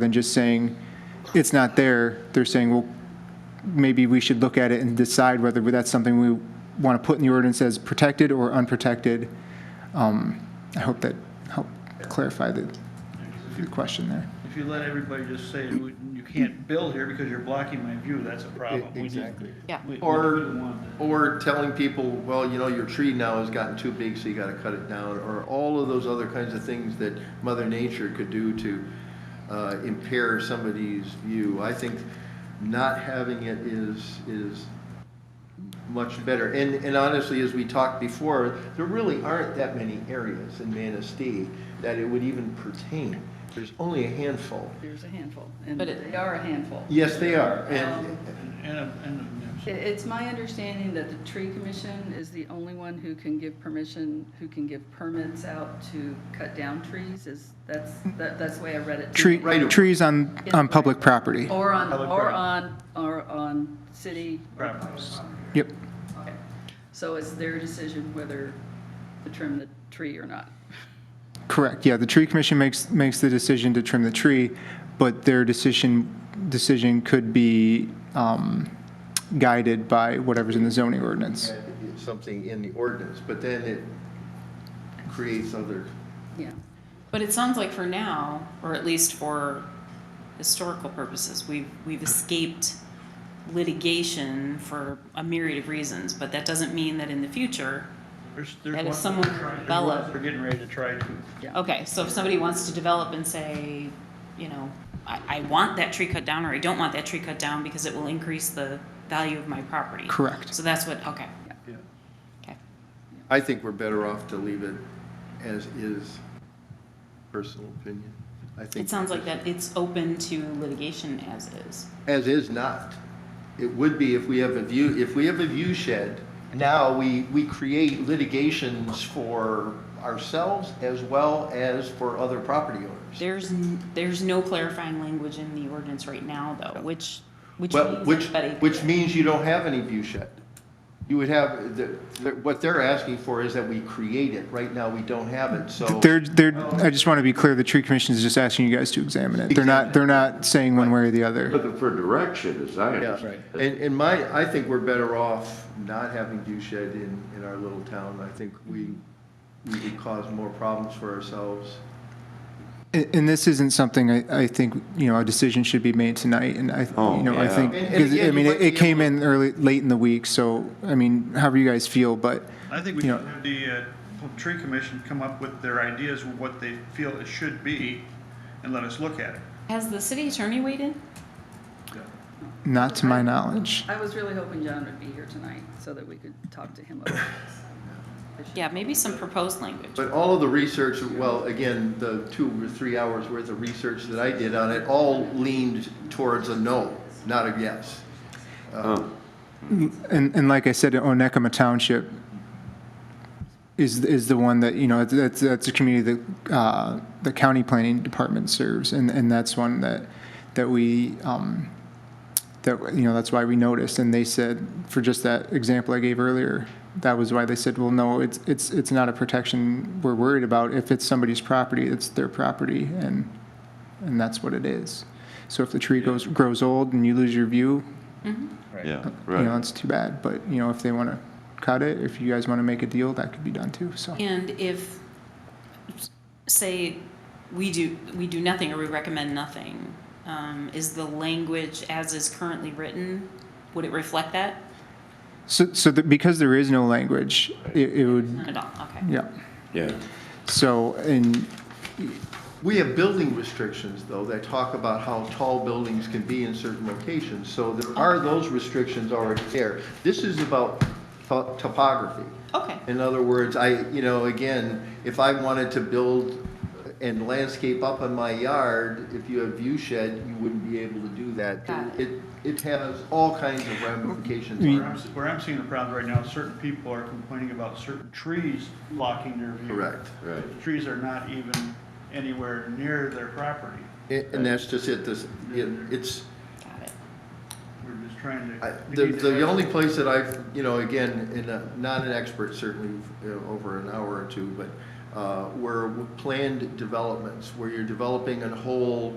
than just saying, it's not there. They're saying, well, maybe we should look at it and decide whether that's something we want to put in the ordinance as protected or unprotected. Um, I hope that helped clarify the, the question there. If you let everybody just say, "You- you can't build here because you're blocking my view, that's a problem. We need- Exactly. Yeah. we- we Or- wouldn't want that. Or telling people, well, you know, your tree now has gotten too big, so you gotta cut it down, or all of those other kinds of things that Mother Nature could do to uh, impair somebody's view. I think not having it is, is much better. And, and honestly, as we talked before, there really aren't that many areas in Manistee that it would even pertain. There's only a handful. There's a handful, and But it- they are a handful. Yes, they are, and, Um, And, a- and, a- It- It's my understanding that the tree commission is the only one who can give permission, who can give permits out to cut down trees, is, that's, that- that's the way I read it. Tree, Right. trees on, on public property. Or on, Public or property. on, or on city. Properties. Yep. Okay. So it's their decision whether to trim the tree or not. Correct, yeah, the tree commission makes, makes the decision to trim the tree, but their decision, decision could be um, guided by whatever's in the zoning ordinance. and something in the ordinance, but then it creates other Yeah. But it sounds like for now, or at least for historical purposes, we've, we've escaped litigation for a myriad of reasons, but that doesn't mean that in the future, there's, there's And if one- someone there's one develop- We're getting ready to try to. okay, so if somebody wants to develop and say, you know, I, I want that tree cut down or I don't want that tree cut down because it will increase the value of my property. Correct. So that's what, okay, Yeah. okay. I think we're better off to leave it as is, personal opinion. I think It sounds like that it's open to litigation as is. As is not. It would be if we have a view, if we have a view shed, now we, we create litigations for ourselves as well as for other property owners. There's, n- there's no clarifying language in the ordinance right now, though, which, which Well, means which, everybody. which means you don't have any view shed. You would have, the, the- what they're asking for is that we create it. Right now, we don't have it, so. They're, they're, I just want to be clear, the tree commission is just asking you guys to examine it. They're not, they're not saying one way or the other. Looking for direction, as I Yeah, understand. and, and my, I think we're better off not having view shed in, in our little town. I think we, we would cause more problems for ourselves. And and this isn't something I, I think, you know, a decision should be made tonight, and I, you know, Oh, I yeah. think, And- and 'cause, again, I you mean, it might be it came able in early, late in the week, so, I mean, however you guys feel, but, I think we You should know- have the, uh, tree commission come up with their ideas, of what they feel it should be, and let us look at it. Has the city attorney weighed in? not to my knowledge. I was really hoping John would be here tonight so that we could talk to him about this. Yeah, maybe some proposed language. But all of the research, well, again, the two or three hours worth of research that I did on it all leaned towards a no, not a yes. Oh, And, and like I said, Onekama Township is, is the one that, you know, that's, that's a community that, uh, the county planning department serves, and, and that's one that, that we, um, that, you know, that's why we noticed, and they said, for just that example I gave earlier, that was why they said, well, no, it's, it's, it's not a protection we're worried about, if it's somebody's property, it's their property, and, and that's what it is. So if the tree goes, grows old and you lose your view, uh, yeah, you know, right. it's too bad, but, you know, if they want to cut it, if you guys want to make a deal, that could be done too, so. And if, say, we do, we do nothing or we recommend nothing, um, is the language as is currently written, would it reflect that? So, so that, because there is no language, it, it would, Not at all, okay. yeah, Yeah, so, and, We have building restrictions, though, that talk about how tall buildings can be in certain locations, so there are those restrictions already there. This is about to- topography. Okay, In other words, I, you know, again, if I wanted to build and landscape up on my yard, if you have view shed, you wouldn't be able to do that. Got it. It, it has all kinds of ramifications. Where I'm, where I'm seeing the problem right now, certain people are complaining about certain trees blocking their view. Correct. right. The Trees are not even anywhere near their property. A- And that's just it, this, it- it's, got it. We're just trying to. I- we the, need to the have- only place that I've, you know, again, in a, not an expert certainly, you know, over an hour or two, but, uh, where planned developments, where you're developing a whole